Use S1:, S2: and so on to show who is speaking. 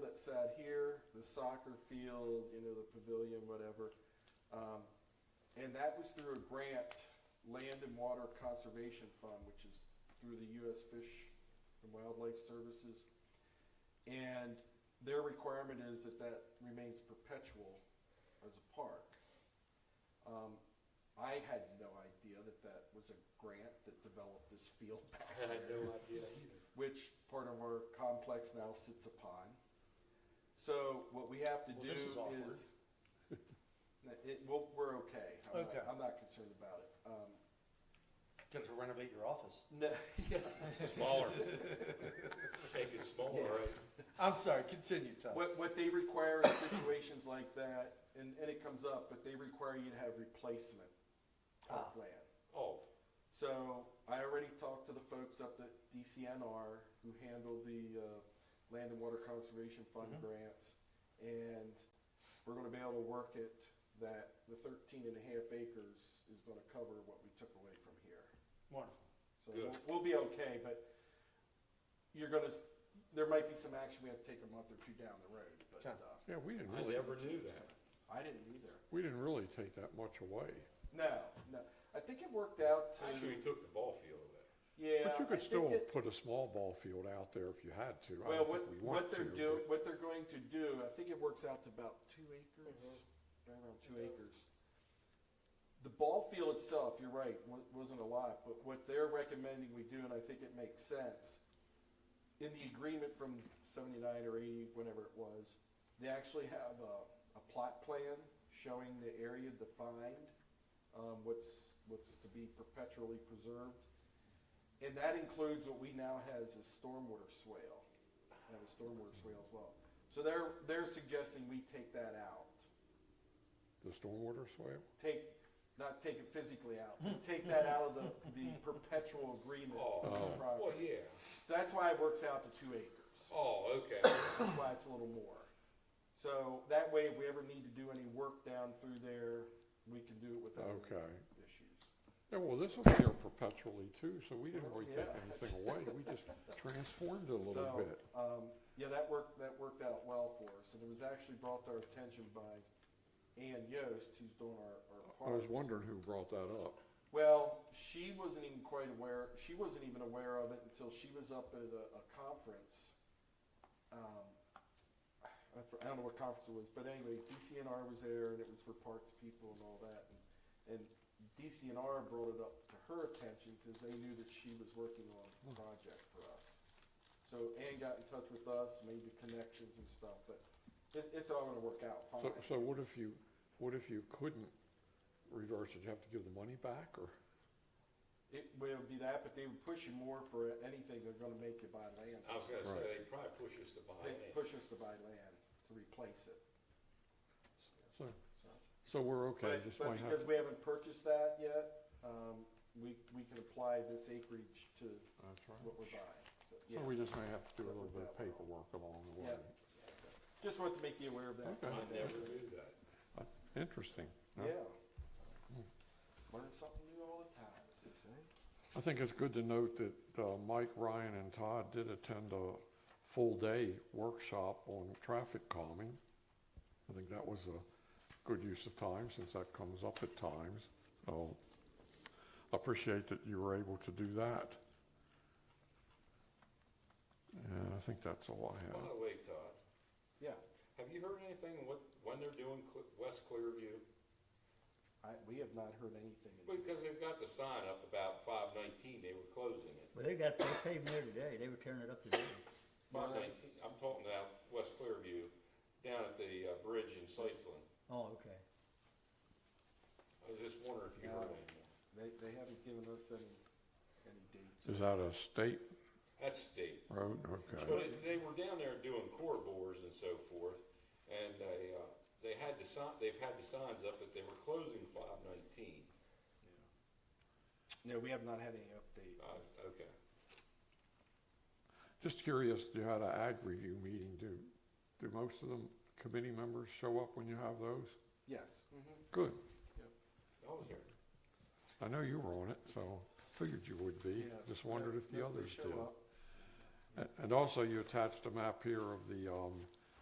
S1: that's out here, the soccer field, you know, the pavilion, whatever. Um, and that was through a grant, Land and Water Conservation Fund, which is through the U.S. Fish and Wildlife Services. And their requirement is that that remains perpetual as a park. Um, I had no idea that that was a grant that developed this field back
S2: I had
S1: there
S2: no idea either.
S1: which part of our complex now sits upon. So what we have to
S2: Well,
S1: do
S2: this is awkward.
S1: is, it, well, we're okay. I'm not-
S3: Okay.
S1: I'm not concerned about it. Um,
S3: Gonna have to renovate your office.
S1: No, yeah.
S2: Smaller. Make it smaller, right?
S3: I'm sorry, continue, Tom.
S1: What, what they require in situations like that, and, and it comes up, but they require you to have replacement
S3: Ah.
S1: plan.
S2: Oh,
S1: So I already talked to the folks up at DCNR who handle the uh, Land and Water Conservation Fund
S3: Mhm.
S1: grants, and we're gonna be able to work it that the 13 and a half acres is gonna cover what we took away from here.
S3: Wonderful.
S1: So
S2: Good.
S1: we'll, we'll be okay, but you're gonna, s- there might be some action we have to take a month or two down the road, but
S3: Okay.
S1: uh,
S4: Yeah, we didn't
S2: I
S4: really,
S2: never knew that.
S1: I didn't either.
S4: we didn't really take that much away.
S1: No, no. I think it worked out to,
S2: Actually, we took the ball field away.
S1: yeah.
S4: But
S1: I
S4: you could
S1: think
S4: still
S1: it-
S4: put a small ball field out there if you had to. I
S1: Well,
S4: don't
S1: what,
S4: think we
S1: what
S4: want
S1: they're
S4: to,
S1: doing, what they're going to do, I think it works out to about two acres, right Mm-hmm. around two acres. The ball field itself, you're right, wa- wasn't a lot, but what they're recommending we do, and I think it makes sense, in the agreement from seventy-nine or eighty, whenever it was, they actually have a, a plot plan showing the area defined, um, what's, what's to be perpetually preserved. And that includes what we now has as stormwater swale, have a stormwater swale as well. So they're, they're suggesting we take that out,
S4: The stormwater swale?
S1: take, not take it physically out, but take that out of the, the perpetual agreement for this
S2: Oh, well,
S1: property.
S2: yeah.
S1: So that's why it works out to two acres.
S2: Oh, okay.
S1: That's why it's a little more. So that way, if we ever need to do any work down through there, we can do it without any
S4: Okay.
S1: issues.
S4: Yeah, well, this was there perpetually too, so we didn't really
S1: Yeah.
S4: take anything away. We just transformed it a little
S1: So,
S4: bit.
S1: um, yeah, that worked, that worked out well for us, and it was actually brought to our attention by Ann Yost, who's doing our, our
S4: I was
S1: parks.
S4: wondering who brought that up.
S1: Well, she wasn't even quite aware, she wasn't even aware of it until she was up at a, a conference. Um, I f- I don't know what conference it was, but anyway, DCNR was there and it was for parks people and all that. And, and DCNR brought it up to her attention because they knew that she was working on a project for us. So Ann got in touch with us, made the connections and stuff, but it, it's all gonna work out
S4: So,
S1: fine.
S4: so what if you, what if you couldn't reverse it? You have to give the money back or?
S1: It will be that, but they would push you more for anything, they're gonna make you buy land.
S2: I was gonna say, they probably push us to buy
S1: They
S2: land.
S1: push us to buy land to replace it,
S4: So,
S1: so.
S4: so we're okay,
S1: But-
S4: just might
S1: But
S4: have,
S1: because we haven't purchased that yet, um, we, we can apply this acreage to
S4: that's right.
S1: what we're buying, so, yeah.
S4: So we just may have to do a
S1: So
S4: little
S1: we're
S4: bit
S1: that
S4: of
S1: well.
S4: paperwork along the way.
S1: Yeah. so, Just wanted to make you aware of that.
S4: Okay.
S2: I never knew that.
S4: Uh, Interesting.
S1: Yeah.
S4: Yeah.
S1: Learn something new all the time, as they say.
S4: I think it's good to note that uh, Mike, Ryan, and Todd did attend a full-day workshop on traffic calming. I think that was a good use of time, since that comes up at times. So I appreciate that you were able to do that. And I think that's all I
S2: By
S4: have.
S2: the way, Todd,
S1: Yeah,
S2: have you heard anything what, when they're doing Cle- West Clearview?
S1: I, we have not heard anything. in-
S2: Because they've got the sign up about five nineteen, they were closing it.
S5: Well, they got, they paved there today, they were tearing it up today.
S2: Five
S1: Right.
S2: nineteen, I'm talking about West Clearview, down at the, uh, bridge in Sliceland.
S5: Oh, okay.
S2: I was just wondering if you
S1: No.
S2: heard anything.
S1: They, they haven't given us any, any dates.
S4: Is that a state
S2: That's state.
S4: road? Okay.
S2: But it- they were down there doing core bores and so forth, and they, uh, they had the sign, they've had the signs up that they were closing five nineteen.
S1: No, we have not had any update.
S2: Uh, okay.
S4: Just curious, you had an ag review meeting. Do, do most of the committee members show up when you have those?
S1: Yes.
S4: Good.
S2: I was there.
S4: I know you were on it, so figured you would be.
S1: Yeah.
S4: Just wondered if the
S1: Nope, they
S4: others
S1: show
S4: did.
S1: up.
S4: A- And also, you attached a map here of the um,